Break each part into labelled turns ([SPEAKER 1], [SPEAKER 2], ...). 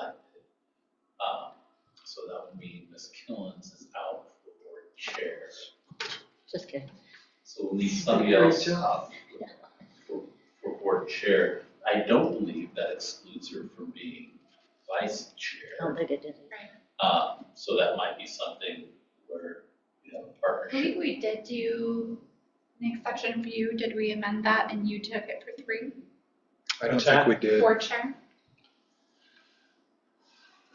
[SPEAKER 1] Um, Ms. Killens is out for the board chair.
[SPEAKER 2] Just kidding.
[SPEAKER 1] So we'll need somebody
[SPEAKER 3] Great
[SPEAKER 1] else
[SPEAKER 3] job.
[SPEAKER 1] for, for board chair. I don't believe that excludes her from being vice
[SPEAKER 2] I don't
[SPEAKER 1] chair.
[SPEAKER 2] think it did.
[SPEAKER 1] Um, so that might be something where we have a
[SPEAKER 4] I
[SPEAKER 1] partnership.
[SPEAKER 4] believe we did do an exception for you, did we amend that and you took it for three,
[SPEAKER 3] I don't
[SPEAKER 5] What's
[SPEAKER 3] think we did.
[SPEAKER 4] four chair?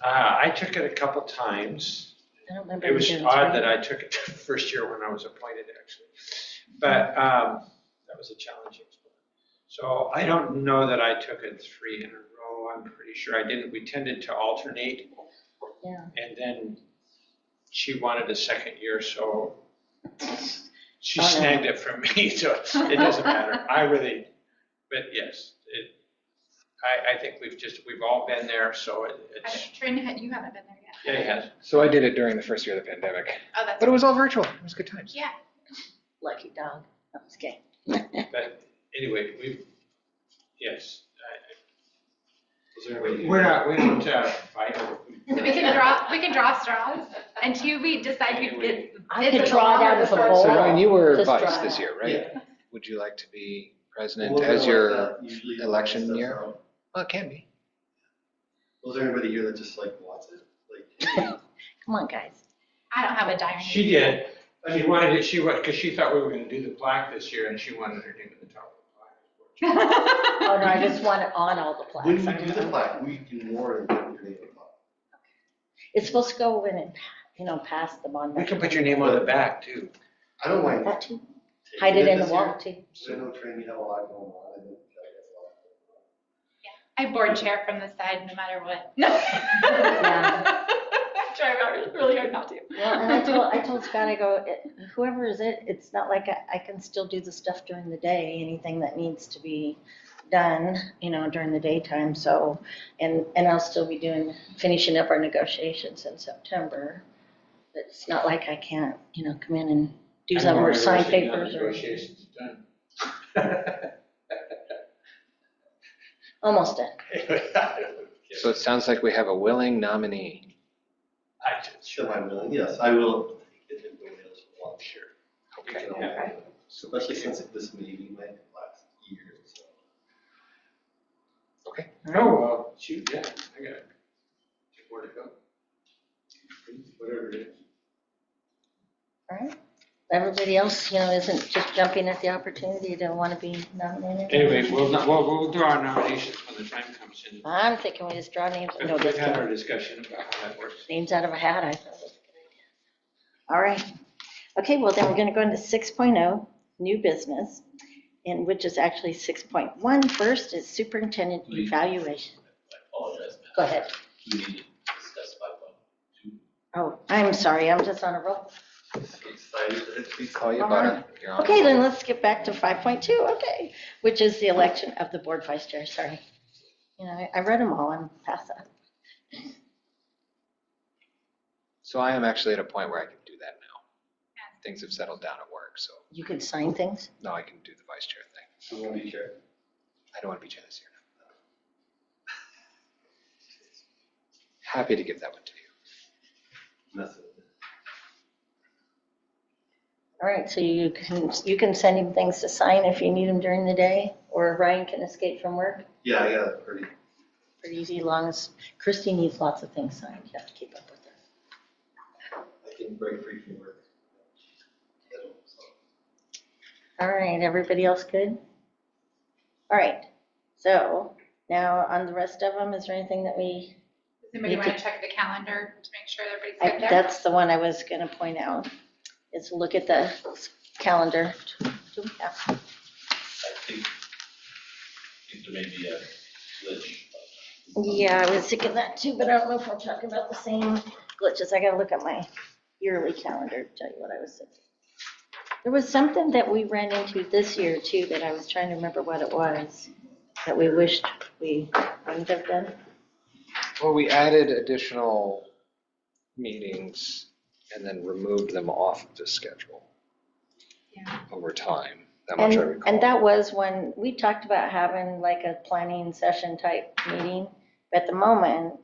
[SPEAKER 5] Uh, I took it a couple times.
[SPEAKER 2] I don't remember.
[SPEAKER 5] It was
[SPEAKER 2] doing it.
[SPEAKER 5] odd that I took it the first year when I was appointed, actually. But um, that was a challenging spot. So I don't know that I took it three in a row. I'm pretty sure I didn't. We tended to alternate.
[SPEAKER 2] Yeah.
[SPEAKER 5] And then she wanted a second year, so she
[SPEAKER 2] Oh, no.
[SPEAKER 5] snagged it from me, so it doesn't matter. I really, but yes, it, I, I think we've just, we've all been there, so it-
[SPEAKER 4] I
[SPEAKER 5] it's,
[SPEAKER 4] don't, Trina, had- you haven't been there yet.
[SPEAKER 5] yeah, yes.
[SPEAKER 3] So I did it during the first year of the pandemic,
[SPEAKER 4] Oh, that's,
[SPEAKER 3] but it was all virtual. It was good times.
[SPEAKER 4] yeah,
[SPEAKER 2] Lucky dog. I'm just kidding.
[SPEAKER 5] But anyway, we've, yes. I-
[SPEAKER 6] there a way to-
[SPEAKER 5] We're not, we don't uh, fight over.
[SPEAKER 4] so we can draw, we can draw straws until we decide who gets,
[SPEAKER 2] I
[SPEAKER 4] Is
[SPEAKER 2] could
[SPEAKER 4] it
[SPEAKER 2] draw that
[SPEAKER 4] allowed to
[SPEAKER 2] as a
[SPEAKER 4] start-
[SPEAKER 2] bowl.
[SPEAKER 3] So Ryan, you were
[SPEAKER 2] Oh, Just
[SPEAKER 3] vice
[SPEAKER 2] try
[SPEAKER 3] this
[SPEAKER 2] it.
[SPEAKER 3] year, right? Would you like to be president
[SPEAKER 6] Was there
[SPEAKER 3] as
[SPEAKER 6] like
[SPEAKER 3] your,
[SPEAKER 6] that uh, usually when
[SPEAKER 3] election
[SPEAKER 6] stuff
[SPEAKER 3] year?
[SPEAKER 6] out?
[SPEAKER 3] well, it can be.
[SPEAKER 6] Was there anybody here that just like wants it? Like,
[SPEAKER 2] Come on, guys.
[SPEAKER 4] I don't have a diary.
[SPEAKER 5] She did. She wanted it, she wanted, because she thought we were going to do the plaque this year and she wanted her name at the top of the plaque.
[SPEAKER 2] Oh, no, I just want it on all the
[SPEAKER 6] when
[SPEAKER 2] plaques.
[SPEAKER 6] we
[SPEAKER 2] I
[SPEAKER 6] do
[SPEAKER 2] don't
[SPEAKER 6] the
[SPEAKER 2] know.
[SPEAKER 6] plaque, we can more than put your name on top.
[SPEAKER 2] It's supposed to go in and, pa- you know, past the monument.
[SPEAKER 5] We can put your name on the back too.
[SPEAKER 6] I don't mind.
[SPEAKER 2] That too.
[SPEAKER 6] taking
[SPEAKER 2] Hide it in the
[SPEAKER 6] this
[SPEAKER 2] wall
[SPEAKER 6] year.
[SPEAKER 2] too.
[SPEAKER 6] So I know Trina, you have a lot going on. I think I have a lot going on.
[SPEAKER 4] I board chair from the side no matter what.
[SPEAKER 2] Yeah.
[SPEAKER 4] Try about really hard not to.
[SPEAKER 2] Well, and I told, I told Scott, I go, "It- whoever is it, it's not like I, I can still do the stuff during the day, anything that needs to be done, you know, during the daytime, so, and, and I'll still be doing, finishing up our negotiations in September. But It's not like I can't, you know, come in and do something or sign papers or,
[SPEAKER 5] Negotiations done.
[SPEAKER 2] almost done.
[SPEAKER 3] So it sounds like we have a willing nominee.
[SPEAKER 5] I just,
[SPEAKER 6] Show my willing, yes, I will. take it if nobody else will want it.
[SPEAKER 5] sure.
[SPEAKER 6] We
[SPEAKER 5] Okay.
[SPEAKER 6] can all
[SPEAKER 5] Yeah.
[SPEAKER 6] do it. Especially since this meeting might last years, so.
[SPEAKER 5] No, Oh, well, shoot, yeah, I got it. Where to go? Whatever it is.
[SPEAKER 2] Alright, everybody else, you know, isn't just jumping at the opportunity to wanna be nominated?
[SPEAKER 5] Anyway, we'll, we'll, we'll do our nominations when the time comes in.
[SPEAKER 2] I'm thinking we just draw names, no,
[SPEAKER 5] But We've
[SPEAKER 2] just
[SPEAKER 5] had our discussion about how that works.
[SPEAKER 2] names out of a hat, I thought was a good idea. All right, okay, well then we're gonna go into six oh, new business, and which is actually 6.1. First is superintendent
[SPEAKER 1] Please.
[SPEAKER 2] evaluation.
[SPEAKER 1] I apologize. Matt.
[SPEAKER 2] Go ahead.
[SPEAKER 1] We need to discuss by one, two,
[SPEAKER 2] Oh, I'm sorry, I'm just on a roll.
[SPEAKER 6] Excited.
[SPEAKER 3] Please call you butter. You're on.
[SPEAKER 2] Okay, then let's get back to 5.2, okay, which is the election of the board vice chair, sorry. You know, I- I read them all, I'm past that.
[SPEAKER 3] So I am actually at a point where I can do that now. Things have settled down at work, so
[SPEAKER 2] You can sign things?
[SPEAKER 3] now I can do the vice chair thing.
[SPEAKER 6] I'm gonna be chair.
[SPEAKER 3] I don't want to be chair this year. Happy to give that one to you.
[SPEAKER 6] Mess it.
[SPEAKER 2] All right, so you can, you can send him things to sign if you need him during the day, or Ryan can escape from work?
[SPEAKER 6] Yeah, I got it pretty.
[SPEAKER 2] pretty easy, long as Christie needs lots of things signed, you have to keep up with her.
[SPEAKER 6] I can break free from work. I don't, so.
[SPEAKER 2] All right, everybody else good? All right, so now on the rest of them, is there anything that we,
[SPEAKER 4] Does anybody want to check the calendar to make sure everybody's
[SPEAKER 2] I-
[SPEAKER 4] good there?
[SPEAKER 2] that's the one I was gonna point out, is look at the calendar. Do we have-
[SPEAKER 1] I think, I think there may be a glitch.
[SPEAKER 2] Yeah, I was sick of that too, but I don't know if we're talking about the same glitches, I gotta look at my yearly calendar, to tell you what I was thinking. There was something that we ran into this year too, that I was trying to remember what it was, that we wished we wouldn't have done.
[SPEAKER 3] Well, we added additional meetings and then removed them off of the schedule
[SPEAKER 4] Yeah.
[SPEAKER 3] over time. That much I
[SPEAKER 2] And,
[SPEAKER 3] recall.
[SPEAKER 2] and that was when, we talked about having like a planning session type meeting, but at the moment,